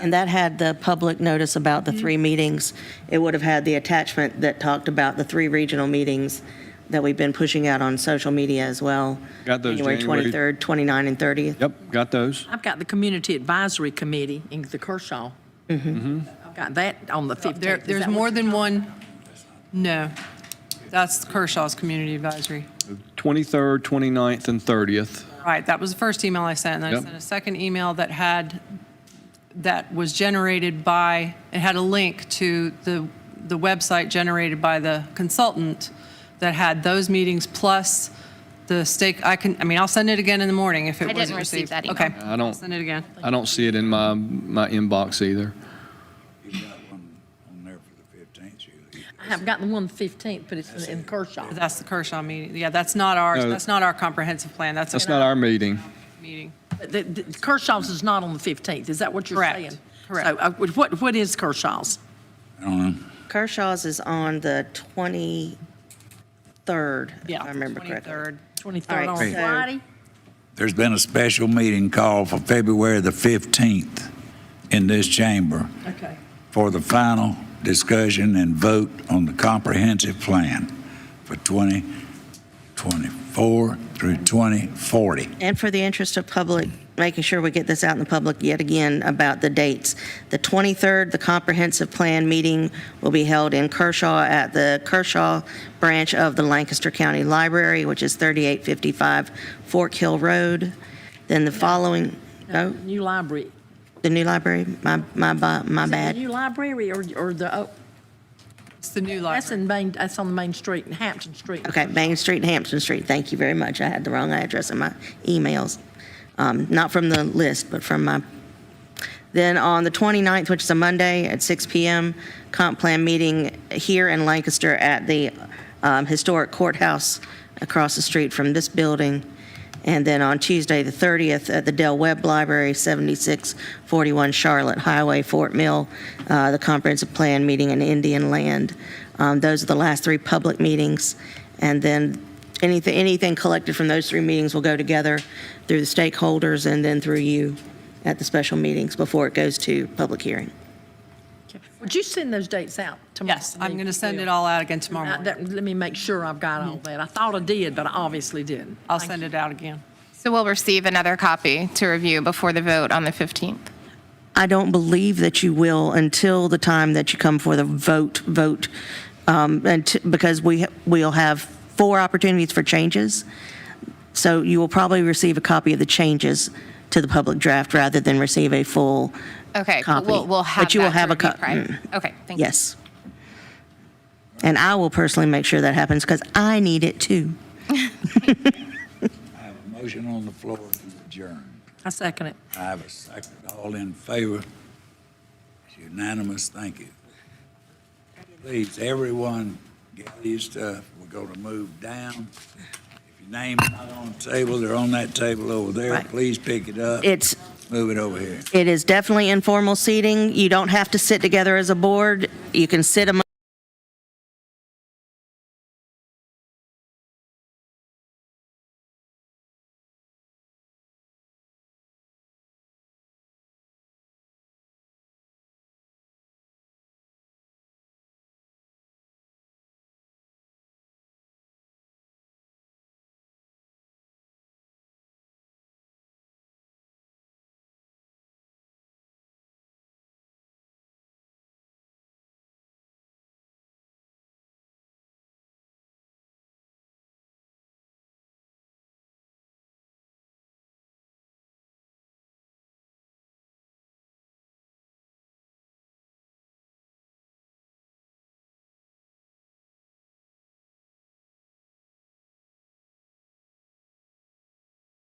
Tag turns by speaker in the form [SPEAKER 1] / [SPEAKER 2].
[SPEAKER 1] And that had the public notice about the three meetings. It would have had the attachment that talked about the three regional meetings that we've been pushing out on social media as well.
[SPEAKER 2] Got those January-
[SPEAKER 1] January 23rd, 29, and 30th.
[SPEAKER 2] Yep, got those.
[SPEAKER 3] I've got the Community Advisory Committee in the Kershaw.
[SPEAKER 4] Mm-hmm.
[SPEAKER 3] I've got that on the 15th.
[SPEAKER 4] There,
[SPEAKER 3] Is
[SPEAKER 4] there's
[SPEAKER 3] that what-
[SPEAKER 4] more than one, no. That's Kershaw's Community Advisory.
[SPEAKER 2] 23rd, 29th, and 30th.
[SPEAKER 4] Right, that was the first email I sent, and then I
[SPEAKER 2] Yep.
[SPEAKER 4] sent a second email that had, that was generated by, it had a link to the, the website generated by the consultant that had those meetings plus the stake, I can, I mean, I'll send it again in the morning if it
[SPEAKER 5] I
[SPEAKER 4] wasn't
[SPEAKER 5] didn't
[SPEAKER 4] received.
[SPEAKER 5] receive that email.
[SPEAKER 4] Okay.
[SPEAKER 2] I don't-
[SPEAKER 4] Send it again.
[SPEAKER 2] I don't see it in my, my inbox either.
[SPEAKER 6] You got one on there for the fifteenth, Julie.
[SPEAKER 3] I have got the one 15th, but it's in Kershaw.
[SPEAKER 4] That's the Kershaw meeting. Yeah, that's not ours,
[SPEAKER 2] No.
[SPEAKER 4] that's not our comprehensive plan, that's
[SPEAKER 2] That's
[SPEAKER 4] a
[SPEAKER 2] not our meeting.
[SPEAKER 4] meeting.
[SPEAKER 3] The- the- Kershaw's is not on the 15th, is that what you're
[SPEAKER 4] Correct,
[SPEAKER 3] saying?
[SPEAKER 4] correct.
[SPEAKER 3] So, uh, what, what is Kershaw's?
[SPEAKER 6] I don't know.
[SPEAKER 1] Kershaw's is on the 23rd, if
[SPEAKER 3] Yeah,
[SPEAKER 1] I remember correctly.
[SPEAKER 4] 23rd.
[SPEAKER 3] 23rd on
[SPEAKER 1] All right, so-
[SPEAKER 3] Friday?
[SPEAKER 6] There's been a special meeting called for February the fifteenth in this chamber
[SPEAKER 3] Okay.
[SPEAKER 6] for the final discussion and vote on the comprehensive plan for twenty twenty-four through twenty forty.
[SPEAKER 1] And for the interest of public, making sure we get this out in the public yet again about the dates. The 23rd, the comprehensive plan meeting will be held in Kershaw at the Kershaw branch of the Lancaster County Library, which is 3855 Fork Hill Road. Then the following, no,
[SPEAKER 3] New library.
[SPEAKER 1] the new library, my, my, bu- my
[SPEAKER 3] Is it the
[SPEAKER 1] bad.
[SPEAKER 3] New library or, or the, oh,
[SPEAKER 4] It's the new library.
[SPEAKER 3] that's in Main, that's on the Main Street in Hampton Street.
[SPEAKER 1] Okay, Main Street and Hampton Street, thank you very much. I had the wrong address in my emails, Um, not from the list, but from my, then on the 29th, which is a Monday at 6 PM, comp plan meeting here in Lancaster at the um, historic courthouse across the street from this building. And then on Tuesday, the 30th, at the Dell Webb Library, 7641 Charlotte Highway, Fort Mill, uh, the comprehensive plan meeting in Indian Land. Um, Those are the last three public meetings. And then anything, anything collected from those three meetings will go together through the stakeholders and then through you at the special meetings before it goes to public hearing.
[SPEAKER 3] Would you send those dates out tomorrow?
[SPEAKER 4] Yes, I'm
[SPEAKER 3] me,
[SPEAKER 4] going to send
[SPEAKER 3] Bill?
[SPEAKER 4] it all out again tomorrow
[SPEAKER 3] Uh,
[SPEAKER 4] morning.
[SPEAKER 3] that- Let me make sure I've got all that. I thought I did, but I obviously didn't.
[SPEAKER 4] I'll send it out again.
[SPEAKER 5] So we'll receive another copy to review before the vote on the 15th.
[SPEAKER 1] I don't believe that you will until the time that you come for the vote, vote, um, and t- because we, we'll have four opportunities for changes. So you will probably receive a copy of the changes to the public draft rather than receive a full
[SPEAKER 5] Okay, but
[SPEAKER 1] copy.
[SPEAKER 5] we'll, we'll have
[SPEAKER 1] But you will
[SPEAKER 5] that to
[SPEAKER 1] have a
[SPEAKER 5] review
[SPEAKER 1] co-
[SPEAKER 5] prior.
[SPEAKER 1] mm,
[SPEAKER 5] Okay, thank you.
[SPEAKER 1] Yes. And I will personally make sure that happens because I need it too.
[SPEAKER 6] I have a motion on the floor to adjourn.
[SPEAKER 3] I second it.
[SPEAKER 6] I have a second. All in favor? It's unanimous. Thank you. Please, everyone, gather your stuff. We're going to move down. If your name's not on the table, they're on that table over there.
[SPEAKER 1] Right.
[SPEAKER 6] Please pick it up.
[SPEAKER 1] It's,
[SPEAKER 6] Move it over here.
[SPEAKER 1] It is definitely informal seating. You don't have to sit together as a board. You can sit among